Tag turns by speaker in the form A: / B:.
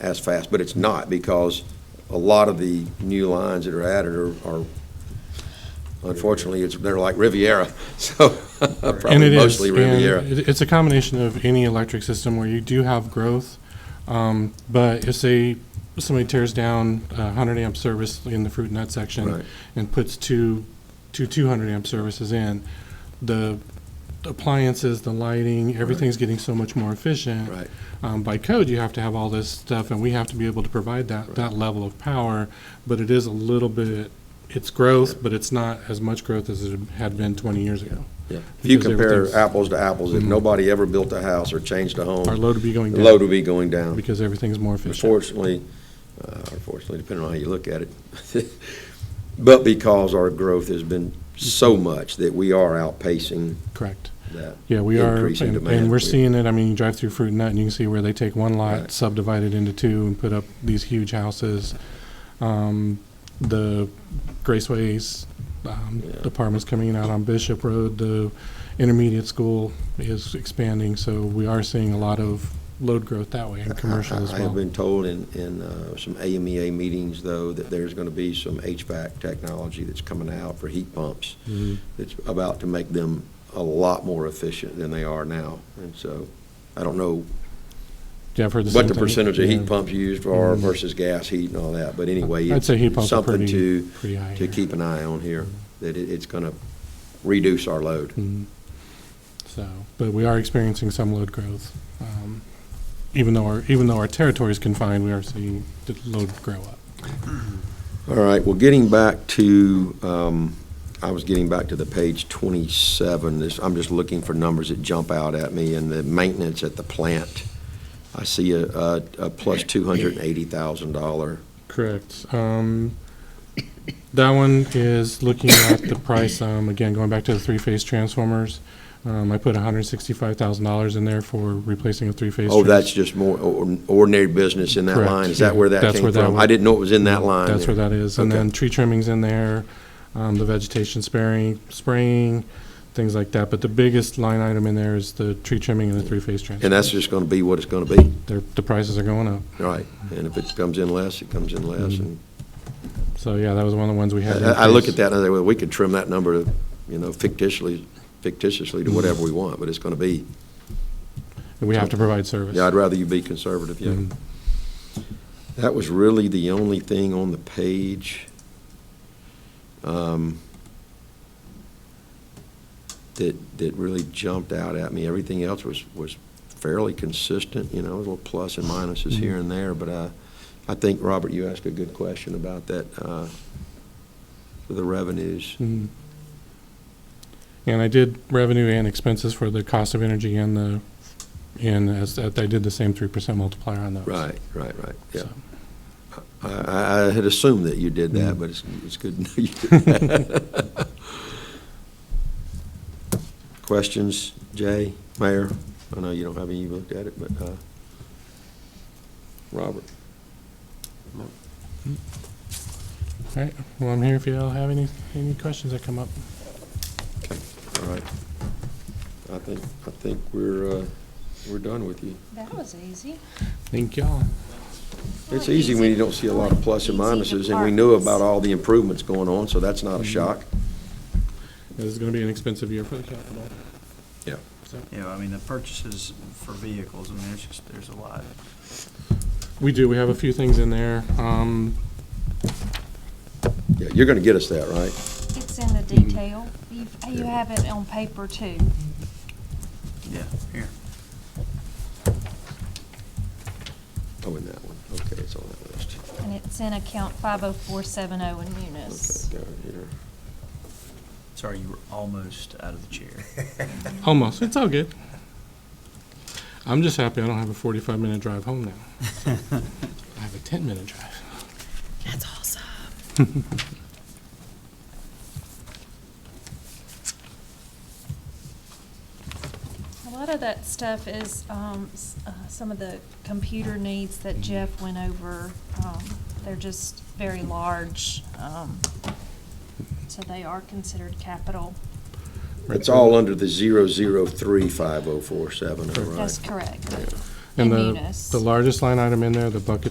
A: as fast, but it's not because a lot of the new lines that are added are, are unfortunately, it's, they're like Riviera, so
B: And it
A: probably
B: is,
A: mostly
B: and
A: Riviera.
B: it- It's a combination of any electric system where you do have growth, um, but if say somebody tears down a hundred amp service in the fruit and nut
A: Right.
B: section and puts two, two two hundred amp services in, the appliances, the lighting, everything's getting so much more efficient.
A: Right.
B: Um, by code, you have to have all this stuff and we have to be able to provide that, that level of power, but it is a little bit, it's growth, but it's not as much growth as it had been twenty years ago.
A: Yeah. If you
B: Because
A: compare
B: everything's-
A: apples to apples, if nobody ever built a house or changed a
B: Mm-hmm. Our
A: home,
B: load would be going
A: the
B: down.
A: load would be going down.
B: Because everything's more efficient.
A: Unfortunately, uh, unfortunately, depending on how you look at it, but because our growth has been so much that we are outpacing
B: Correct.
A: that.
B: Yeah, we are,
A: Increasing
B: and-
A: demand.
B: and we're seeing it. I mean, you drive through Fruit and Nut and you can see where they take one
A: Right.
B: lot, subdivide it into two and put up these huge houses. Um, The Graceways um,
A: Yeah.
B: apartments coming out on Bishop Road, the intermediate school is expanding. So we are seeing a lot of load growth that way in commercial as
A: I- I have
B: well.
A: been told in, in uh, some AMEA meetings, though, that there's going to be some HVAC technology that's coming out for heat pumps
B: Mhm.
A: that's about to make them a lot more efficient than they are now. And so, I don't know
B: Yeah, I've heard the same
A: what
B: thing.
A: the percentage of
B: Yeah.
A: heat pumps used are
B: Mhm.
A: versus gas heat and all that, but anyway,
B: I'd
A: it's
B: say heat
A: it's
B: pumps are
A: something
B: pretty, Mm-hmm.
A: to,
B: pretty high
A: to
B: here.
A: keep an eye on here, that it, it's gonna reduce our load.
B: Mhm. So, but we are experiencing some load growth. Um, Even though our, even though our territory is confined, we are seeing the load grow up.
A: All right, well, getting back to, um, I was getting back to the page twenty-seven, this, I'm just looking for numbers that jump out at me, and the maintenance at the plant. I see a, a, a plus two hundred and eighty thousand dollar,
B: Correct. Um, That one is looking at the price, um, again, going back to the three-phase transformers. Um, I put $165,000 in there for replacing a three-phase.
A: oh,
B: trans-
A: that's just more or- ordinary business in that
B: Correct,
A: line, is
B: yeah.
A: that where that
B: That's
A: came
B: where that
A: from?
B: one-
A: I didn't know it was in that line.
B: That's
A: there.
B: where that is. And
A: Okay.
B: then tree trimmings in there, um, the vegetation sparing, spraying, things like that. But the biggest line item in there is the tree trimming and the three-phase transformer.
A: And that's just gonna be what it's gonna be.
B: Their, the prices are going up.
A: Right, and if it comes in less, it comes in less, and
B: So, yeah, that was one of Mm-hmm. the ones we had.
A: I I look at
B: increased.
A: that, and I say, well, we could trim that number, to, you know, fictitiously, fictitiously
B: Mm-hmm.
A: to whatever we want, but it's gonna be,
B: We have to provide service.
A: yeah, I'd rather you be conservative, yeah.
B: Mhm.
A: That was really the only thing on the page um, that, that really jumped out at me. Everything else was, was fairly consistent, you know, little plus and minuses here and there, but I, I think, Robert, you asked a good question about that, uh, the revenues.
B: Mhm. And I did revenue and expenses for the cost of energy and the, and as, I did the same three percent multiplier on those.
A: Right, right, right, yeah.
B: So,
A: I, I- I had assumed that you did that,
B: Mm.
A: but it's, it's good to know you did that. Questions, Jay, Mayor? I know you don't have any, you looked at it, but, uh, Robert?
B: All right, well, I'm here if y'all have any, any questions that come up.
A: Okay, all right. I think, I think we're, uh, we're done with you.
C: That was easy.
B: Thank y'all.
A: It's easy when you don't see a lot of plus and minuses, and we knew about all the improvements going on, so that's not a shock.
B: This is gonna be an expensive year for the capital.
A: Yeah.
B: So,
D: Yeah, I mean, the purchases for vehicles, I mean, there's just, there's a lot.
B: We do, we have a few things in there. Um,
A: Yeah, you're gonna get us that, right?
C: It's in the detail. You, you have it on paper too.
D: Yeah, here.
A: Oh, in that one, okay, it's on that list.
C: And it's in account five oh four seven oh in Munis.
A: Okay, down here.
D: Sorry, you were almost out of the chair.
B: almost, it's all good. I'm just happy I don't have a forty-five minute drive home now. I have a ten-minute drive.
E: That's awesome.
C: A lot of that stuff is, um, s- uh, some of the computer needs that Jeff went over. Um, they're just very large, um, so they are considered capital.
A: It's all under the zero zero three five oh four seven, all right?
C: That's correct.
B: And
C: In
B: the,
C: Munis.
B: the largest line item in there, the bucket